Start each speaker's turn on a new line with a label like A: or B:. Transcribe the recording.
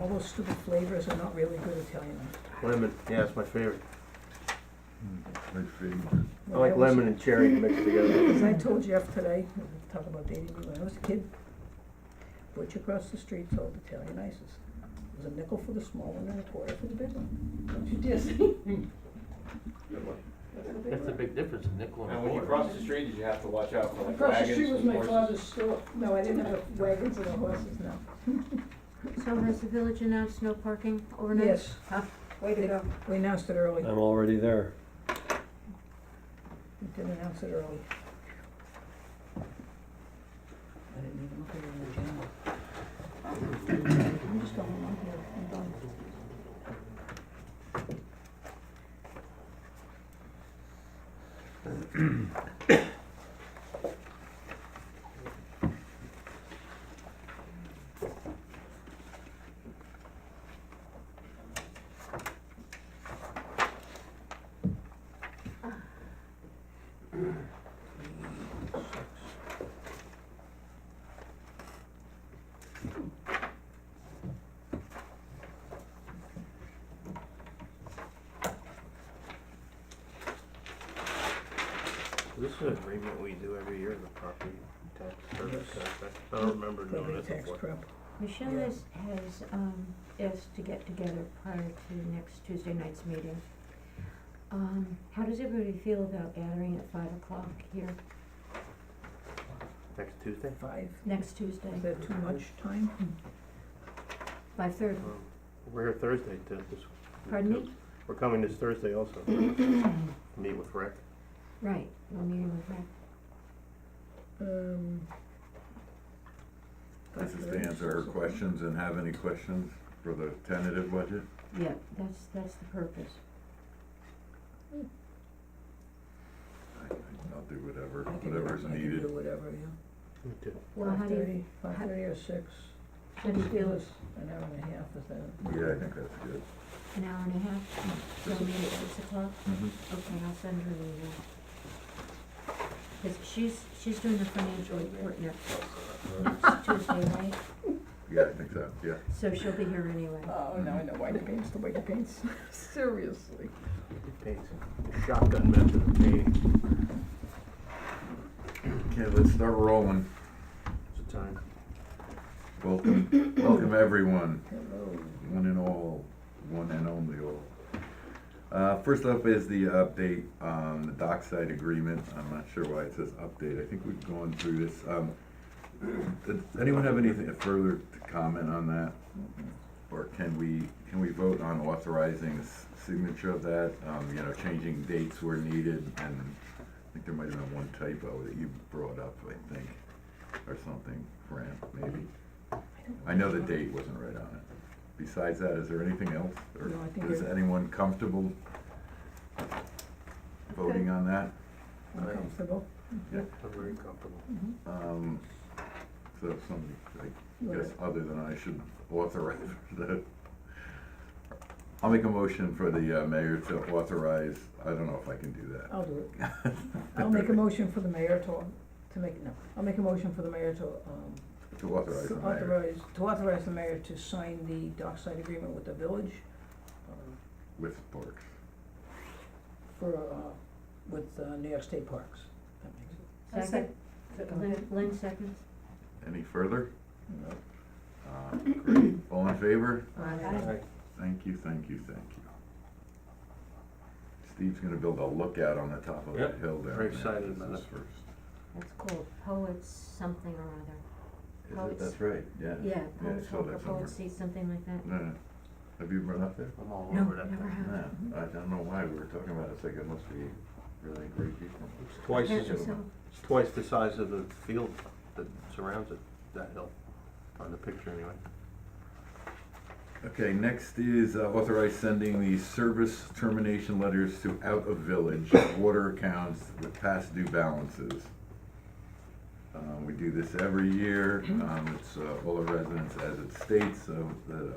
A: all those stupid flavors are not really good Italian.
B: Lemon, yeah, it's my favorite.
C: My favorite.
B: I like
A: When was-
B: lemon and cherry mixed together.
A: As I told Jeff today, we were talking about dating me, when I was a kid, butcher across the street sold Italian ices. It was a nickel for the small one and a quarter for the big one. Don't you dare say.
D: That's a big difference in nickel and a
E: And when you
D: quarter.
E: cross the street, you have to watch out for like
A: Across the
E: wagons
A: street was
E: and
A: my
E: horses.
A: father's store. No, I didn't have wagons or horses, no.
F: So has the village announced no parking overnight?
A: Yes.
F: Huh?
A: Way to go. We announced it early.
G: I'm already there.
A: We did announce it early. I didn't even look at it in the agenda. I'm just going along here, I'm done.
B: This is an agreement we do every year, the property tax service contract. I don't remember doing
A: Property
B: this
A: tax
B: before.
A: prep.
F: Michelle
A: Yeah.
F: has, has, um, asked to get together prior to next Tuesday night's meeting. Um, how does everybody feel about gathering at five o'clock here
B: Next Tuesday?
A: Five,
F: next Tuesday,
A: is that too much time?
F: five thirty?
B: Um, We're here Thursday to this.
F: Pardon me?
B: We're coming this Thursday also. Meet with Rick.
F: Right, we're meeting with Rick.
A: Um.
C: This is to answer her questions and have any questions for the tentative budget?
F: Yeah, that's, that's the purpose.
C: I- I'll do whatever,
A: I can do-
C: whatever's
A: I can do
C: needed.
A: whatever, yeah.
B: Me too.
F: Well, how do you,
A: 5:30, 5:30 or six.
F: how do you feel,
A: Give us An hour and a half, is that?
C: Yeah, I think that's good.
F: an hour and a half, so meet at six o'clock?
C: Mhm.
F: Okay, I'll send her the, email. Cause she's, she's doing the financial report next, next Tuesday, right?
C: Yeah, I think so, yeah.
F: So she'll be here anyway.
A: Oh, now I know why the paint's the way the paint's, seriously.
B: Paint. Shotgun method of painting.
C: Okay, let's start rolling.
B: It's a time.
C: Welcome, welcome everyone,
A: Hello.
C: one and all, one and only all. Uh, first up is the update on the dockside agreement. I'm not sure why it says update. I think we've gone through this. Um, does anyone have anything further to comment on that? Or can we, can we vote on authorizing the s- signature of that? Um, you know, changing dates where needed and I think there might have been one typo that you brought up, I think, or something, Fran, maybe. I know the date wasn't right on it. Besides that, is there anything else? Or
A: No, I think
C: Is
A: you're-
C: anyone comfortable voting on that?
B: Aye.
A: Uncomfortable? Mm-hmm.
B: I'm very comfortable.
C: Um, so somebody,
A: You
C: I
A: wanna-
C: guess, other than I should authorize the, I'll make a motion for the uh, mayor to authorize, I don't know if I can do that.
A: I'll do it. I'll make a motion for the mayor to, to make, no, I'll make a motion for the mayor to, um,
C: To authorize the mayor
A: authorize, to authorize the mayor to sign the dockside agreement with the village, um,
C: with Parks.
A: for, uh, with, uh, New York State Parks. That makes it.
F: Second. Lynn, Lynn seconds?
C: Any further?
A: no.
C: Uh, Great, all in favor?
F: Aye.
C: Thank you, thank you, thank you. Steve's gonna build a lookout on the top of that
B: Yep,
C: hill down there.
B: very excited
C: This
B: about
C: is
B: it.
C: first.
F: That's cool, poets something or other.
C: Is it-
F: Poets.
C: That's right, yeah.
F: Yeah,
C: Yeah, I
F: poets
C: saw
F: hope or
C: that somewhere.
F: poets see something like that.
C: No, no. Have you been up there?
B: I'm all
F: No,
B: over that
F: never
B: thing.
F: have.
C: Yeah, I don't know why we were talking about it, it's like it must be really great people.
B: It's twice as,
F: Apparently so.
B: it's twice the size of the field that surrounds it, that hill, on the picture anyway.
C: Okay, next is uh, authorize sending the service termination letters to out of village water accounts with past due balances. Uh, we do this every year, um, it's, uh, all the residents as it states, so the